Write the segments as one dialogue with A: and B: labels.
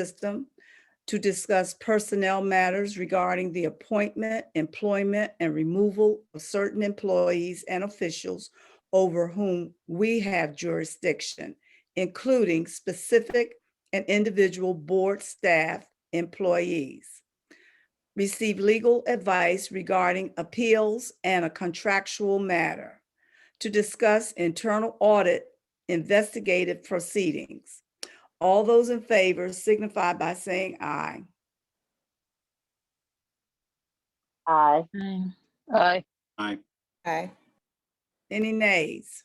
A: system to discuss personnel matters regarding the appointment, employment, and removal of certain employees and officials over whom we have jurisdiction, including specific and individual board staff employees. Receive legal advice regarding appeals and a contractual matter. To discuss internal audit investigative proceedings. All those in favor signify by saying aye.
B: Aye.
C: Aye.
B: Aye.
D: Aye.
E: Aye.
A: Any nays?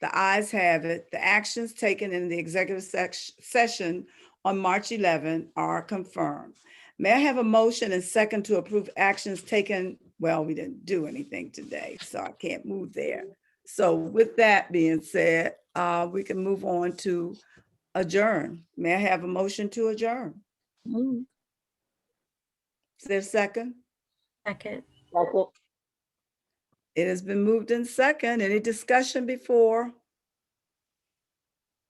A: The ayes have it. The actions taken in the executive sec- session on March 11 are confirmed. May I have a motion and second to approve actions taken? Well, we didn't do anything today, so I can't move there. So with that being said, uh, we can move on to adjourn. May I have a motion to adjourn? Is there a second?
C: Second.
B: Second.
A: It has been moved in second. Any discussion before?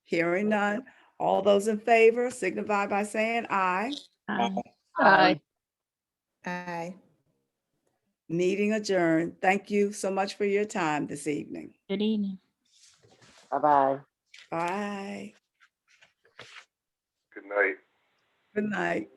A: Hearing none. All those in favor signify by saying aye.
C: Aye.
B: Aye.
E: Aye.
A: Meeting adjourned. Thank you so much for your time this evening.
C: Good evening.
B: Bye-bye.
A: Bye.
F: Good night.
A: Good night.